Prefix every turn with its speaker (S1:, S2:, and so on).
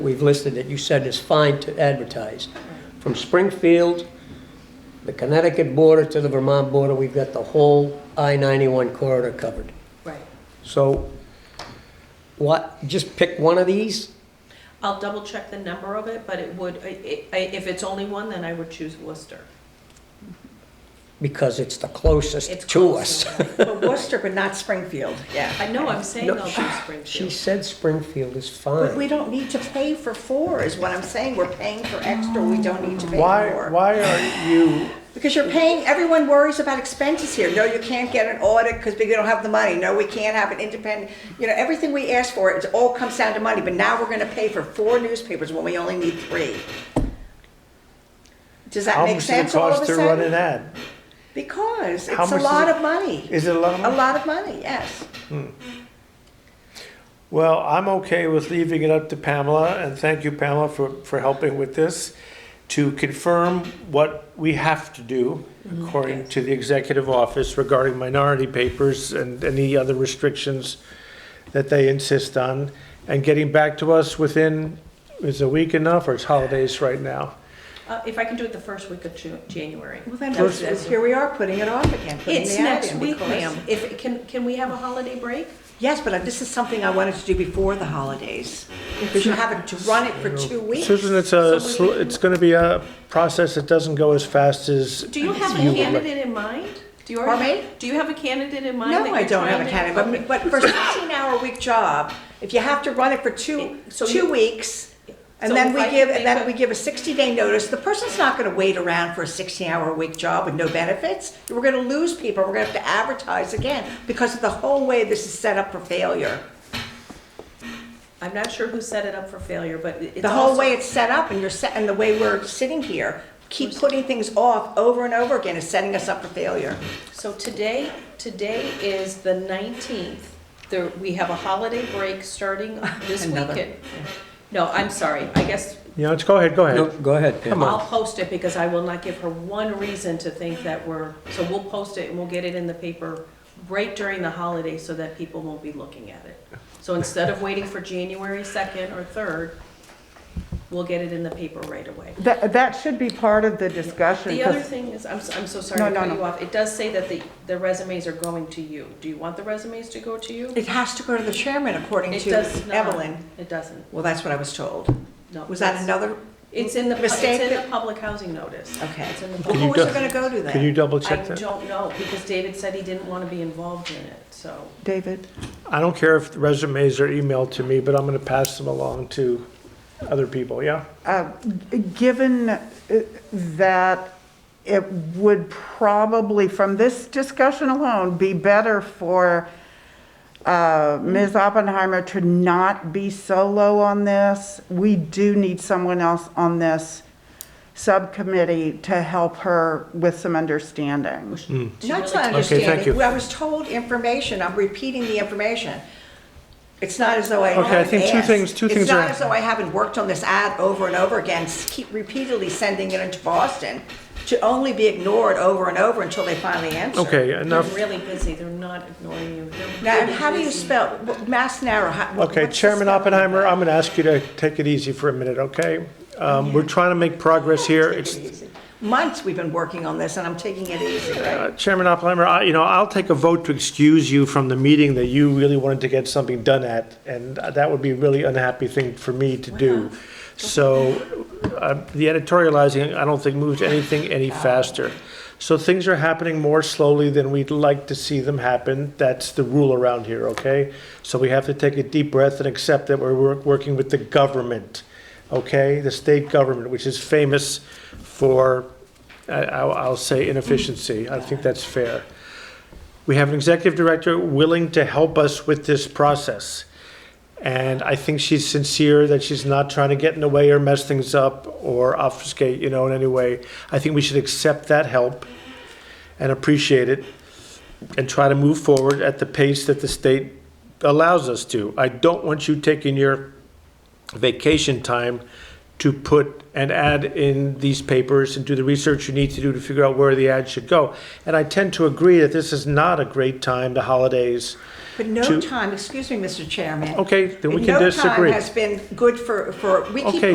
S1: we've listed that you said is fine to advertise. From Springfield, the Connecticut border to the Vermont border, we've got the whole I-91 corridor covered.
S2: Right.
S1: So what, just pick one of these?
S2: I'll double check the number of it, but it would, i- i- if it's only one, then I would choose Worcester.
S1: Because it's the
S2: It's
S1: closest to
S2: close
S1: us.
S2: enough.
S3: But Worcester, but not Springfield, yeah.
S2: I know, I'm saying
S1: No,
S2: I'll
S1: she-
S2: choose
S1: She
S2: Springfield.
S1: said Springfield is
S3: But we
S1: fine.
S3: don't need to pay for four, is what I'm saying. We're paying for extra, we don't need to pay
S4: Why,
S3: more.
S4: why are you,
S3: Because you're paying, everyone worries about expenses here. No, you can't get an audit because we don't have the money. No, we can't have an independent, you know, everything we ask for, it all comes down to money. But now we're gonna pay for four newspapers when we only need three. Does that
S4: how
S3: make
S4: much does it
S3: sense all of
S4: cost
S3: a
S4: to run an
S3: sudden?
S4: ad?
S3: Because
S4: How
S3: it's a
S4: much does
S3: lot
S4: it-
S3: of money.
S4: Is it a lot of
S3: A
S4: money?
S3: lot of money, yes.
S4: Well, I'm okay with leaving it up to Pamela, and thank you, Pamela, for, for helping with this, to confirm what we have to do
S3: Mm-hmm.
S4: according to the executive office regarding minority papers and any other restrictions that they insist on, and getting back to us within, is a week enough, or it's holidays right now?
S2: Uh, If I can do it the first week of Ju- January.
S3: Well, then,
S2: That's-
S3: it's- here we are, putting it off again. putting
S2: It's
S3: the ad
S2: next
S3: in
S2: week,
S3: because-
S2: ma'am. If, it can, can we have a holiday break?
S3: Yes, but this is something I wanted to do before the holidays, because you have to run it for two weeks.
S4: Susan, it's a,
S2: So we
S4: sl-
S2: can-
S4: it's gonna be a process that doesn't go as fast as.
S2: Do you have a
S4: would like.
S2: candidate in mind? Do you already-
S3: Pardon me?
S2: Do you have a candidate in mind? that
S3: No, I
S2: you're
S3: don't
S2: trying
S3: have a
S2: to-
S3: candidate, but, but for a 16-hour-week job, if you have to run it for two,
S2: So
S3: two
S2: you-
S3: weeks, and
S2: So
S3: then
S2: if
S3: we
S2: I
S3: give,
S2: could
S3: and then
S2: make a-
S3: we give a 60-day notice, the person's not gonna wait around for a 16-hour-a-week job with no benefits. We're gonna lose people, we're gonna have to advertise again, because of the whole way this is set up for failure.
S2: I'm not sure who set it up for failure, but it- it's
S3: The whole
S2: also-
S3: way it's set up and you're set, and the way we're sitting here, keep putting things off over and over again is setting us up for failure.
S2: So today, today is the 19th. There, we have a holiday break starting this
S3: Another.
S2: weekend. No, I'm sorry, I guess
S4: You know, it's, go ahead, go
S1: No,
S4: ahead.
S1: go ahead, Pam.
S4: Come on.
S2: I'll post it because I will not give her one reason to think that we're, so we'll post it and we'll get it in the paper right during the holiday so that people won't be looking at it. So instead of waiting for January 2nd or 3rd, we'll get it in the paper right away.
S5: That, that should be part of the discussion.
S2: The other
S5: 'cause-
S2: thing is, I'm, s- I'm so sorry
S5: No,
S2: to
S5: no,
S2: cut
S5: no.
S2: you off, it does say that the, the resumes are going to you. Do you want the resumes to go to you?
S3: It has to go to the chairman according
S2: It
S3: to
S2: does not.
S3: Evelyn.
S2: It doesn't,
S3: Well, that's what I was told.
S2: no.
S3: Was that
S2: it's-
S3: another?
S2: It's in the, pu- it's
S3: mistake
S2: in the
S3: that-
S2: public housing notice.
S3: Okay.
S2: It's in the
S3: Well,
S2: public-
S4: you
S3: who was
S4: do-
S3: it gonna go to
S4: Could you
S3: then?
S4: double
S2: I
S4: check that?
S2: don't know, because David said he didn't want to be involved in it, so.
S5: David,
S4: I don't care if the resumes are emailed to me, but I'm gonna pass them along to other people, yeah?
S5: uh, g- given uh, that it would probably, from this discussion alone, be better for uh, Ms. Oppenheimer to not be solo on this, we do need someone else on this subcommittee to help her with some understanding.
S3: That's
S2: really-
S3: not
S4: Okay, thank
S3: understanding.
S4: you.
S3: I was told information, I'm repeating the information. It's not as though I
S4: Okay, I
S3: haven't asked.
S4: think two things- two things
S3: It's not
S4: are-
S3: as though I haven't worked on this ad over and over again, s- keep repeatedly sending it into Boston to only be ignored over and over until they finally answer.
S4: Okay,
S2: They're
S4: enough.
S2: really busy, they're not ignoring you. They're
S3: Now,
S2: really
S3: how do you
S2: busy.
S3: spell, wh- Mass Narrow? how- wh-
S4: Okay,
S3: what's the
S4: Chairman
S3: spelling of
S4: Oppenheimer,
S3: that?
S4: I'm gonna ask you to take it easy for a minute, okay? Um, we're trying to make progress here.
S3: Take it
S4: It's,
S3: easy. Months we've been working on this, and I'm taking it easy, right?
S4: uh, Chairman Oppenheimer, I, you know, I'll take a vote to excuse you from the meeting that you really wanted to get something done at, and that would be a really unhappy thing for me to do. So, uh, the editorializing, I don't think moves anything any faster. So things are happening more slowly than we'd like to see them happen. That's the rule around here, okay? So we have to take a deep breath and accept that we're wor- working with the government, okay? The state government, which is famous for, I- I'll I'll say inefficiency. I think that's fair. We have an executive director willing to help us with this process. And I think she's sincere that she's not trying to get in the way or mess things up or obfuscate, you know, in any way. I think we should accept that help and appreciate it and try to move forward at the pace that the state allows us to. I don't want you taking your vacation time to put an ad in these papers and do the research you need to do to figure out where the ad should go. And I tend to agree that this is not a great time, the holidays.
S3: But no
S4: to-
S3: time, excuse me, Mr. Chairman.
S4: Okay, then we can
S3: No
S4: disagree.
S3: time has been good for, for, we keep
S4: Okay,